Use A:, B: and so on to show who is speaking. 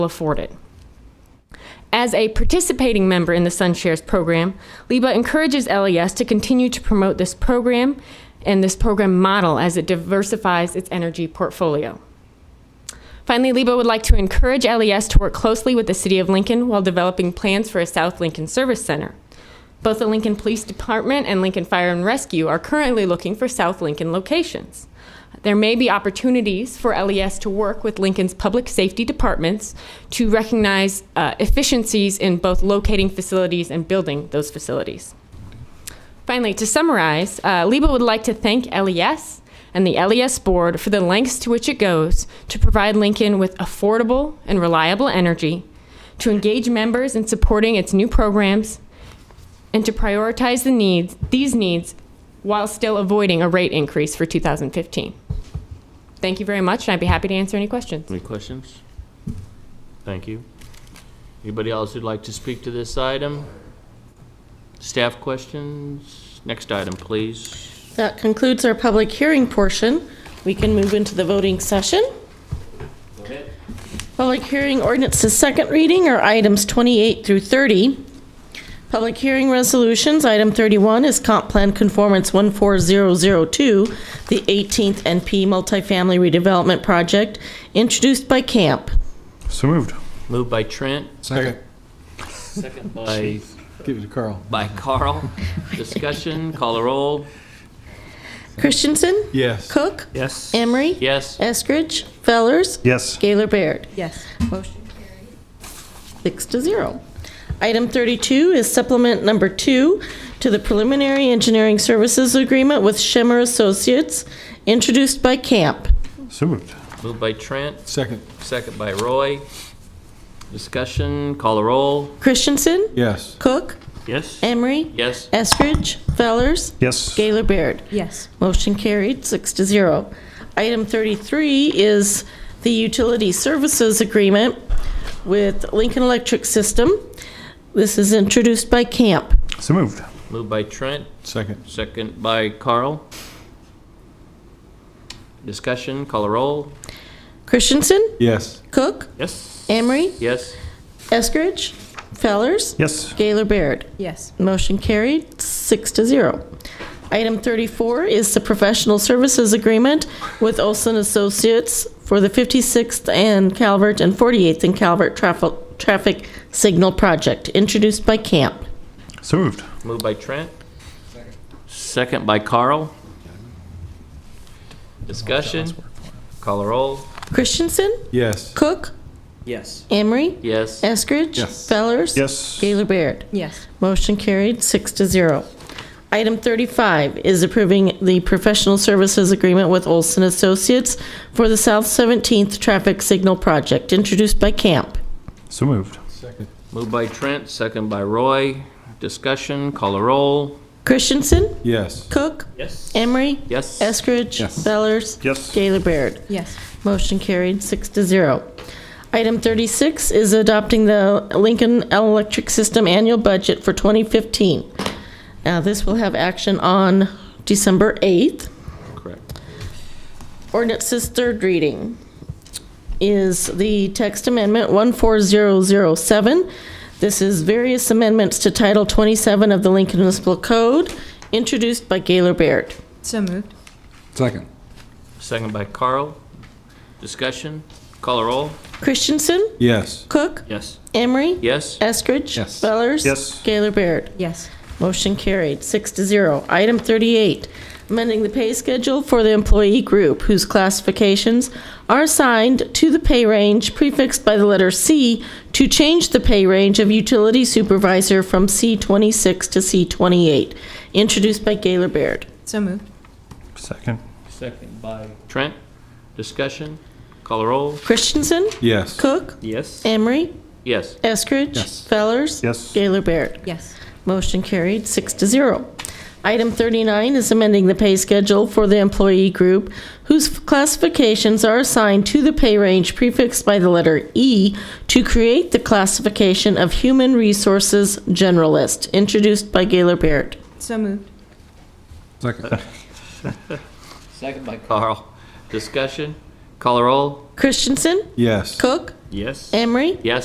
A: afford it. As a participating member in the SunShares program, LIBA encourages LES to continue to promote this program and this program model as it diversifies its energy portfolio. Finally, LIBA would like to encourage LES to work closely with the City of Lincoln while developing plans for a South Lincoln Service Center. Both the Lincoln Police Department and Lincoln Fire and Rescue are currently looking for South Lincoln locations. There may be opportunities for LES to work with Lincoln's public safety departments to recognize uh, efficiencies in both locating facilities and building those facilities. Finally, to summarize, uh, LIBA would like to thank LES and the LES board for the lengths to which it goes to provide Lincoln with affordable and reliable energy, to engage members in supporting its new programs, and to prioritize the needs, these needs while still avoiding a rate increase for 2015. Thank you very much, and I'd be happy to answer any questions.
B: Any questions? Thank you. Anybody else who'd like to speak to this item? Staff questions? Next item, please.
C: That concludes our public hearing portion. We can move into the voting session. Public hearing ordinances, second reading are items 28 through 30. Public hearing resolutions, item 31 is Comp Plan Conformance 14002, the 18th NP Multifamily Redevelopment Project, introduced by Camp.
D: So moved.
B: Moved by Trent.
D: Second.
B: Second. By,
D: Give it to Carl.
B: by Carl. Discussion, call a roll.
C: Christensen?
D: Yes.
C: Cook?
B: Yes.
C: Emery?
B: Yes.
C: Eskridge? Fellers?
D: Yes.
C: Gaylor Baird?
A: Yes.
C: Motion carried. Six to zero. Item 32 is supplement number two to the preliminary engineering services agreement with Shimmer Associates, introduced by Camp.
D: So moved.
B: Moved by Trent,
D: Second.
B: second by Roy. Discussion, call a roll.
C: Christensen,
D: Yes.
C: Cook,
B: Yes.
C: Emery,
B: Yes.
C: Eskridge, Fellers,
D: Yes.
C: Gaylor Baird.
A: Yes.
C: Motion carried, six to zero. Item 33 is the utility services agreement with Lincoln Electric System. This is introduced by Camp.
D: So moved.
B: Moved by Trent,
D: Second.
B: second by Carl. Discussion, call a roll.
C: Christensen,
D: Yes.
C: Cook,
B: Yes.
C: Emery,
B: Yes.
C: Eskridge, Fellers,
D: Yes.
C: Gaylor Baird.
A: Yes.
C: Motion carried, six to zero. Item 34 is the professional services agreement with Olson Associates for the 56th and Calvert and 48th and Calvert traffic, traffic signal project, introduced by Camp.
D: So moved.
B: Moved by Trent. Second by Carl. Discussion. Call a roll.
C: Christensen,
D: Yes.
C: Cook,
B: Yes.
C: Emery,
B: Yes.
C: Eskridge,
D: Yes.
C: Fellers,
D: Yes.
C: Gaylor Baird.
A: Yes.
C: Motion carried, six to zero. Item 35 is approving the professional services agreement with Olson Associates for the South 17th Traffic Signal Project, introduced by Camp.
D: So moved.
B: Moved by Trent, second by Roy. Discussion. Call a roll.
C: Christensen,
D: Yes.
C: Cook,
B: Yes.
C: Emery,
B: Yes.
C: Eskridge,
D: Yes.
C: Fellers,
D: Yes.
C: Gaylor Baird.
A: Yes.
C: Motion carried, six to zero. Item 36 is adopting the Lincoln Electric System Annual Budget for 2015. Now, this will have action on December 8th.
B: Correct.
C: Ordinance's third reading is the text amendment 14007. This is various amendments to Title 27 of the Lincoln Municipal Code, introduced by Gaylor Baird.
E: So moved.
F: Second.
B: Second by Carl. Discussion. Call a roll.
C: Christensen,
D: Yes.
C: Cook,
B: Yes.
C: Emery,
B: Yes.
C: Eskridge.
F: Yes.
C: Fellers.
D: Yes.
C: Gaylor Baird.
E: Yes.
C: Motion carried, six to zero. Item 38, amending the pay schedule for the employee group whose classifications are assigned to the pay range prefixed by the letter C to change the pay range of utility supervisor from C26 to C28, introduced by Gaylor Baird.
E: So moved.
D: Second.
B: Second by Trent. Discussion. Call a roll.
C: Christensen,
D: Yes.
C: Cook,
B: Yes.
C: Emery,
B: Yes.
C: Eskridge.
F: Yes.
C: Fellers.
D: Yes.
C: Gaylor Baird.
E: Yes.
C: Motion carried, six to zero. Item 39 is amending the pay schedule for the employee group whose classifications are assigned to the pay range prefixed by the letter E to create the classification of Human Resources Generalist, introduced by Gaylor Baird.
E: So moved.
F: Second.
B: Second by Carl. Discussion.
C: Call or roll?
B: Christensen,
G: Yes.
B: Cook,
C: Yes.
B: Emery,
C: Yes.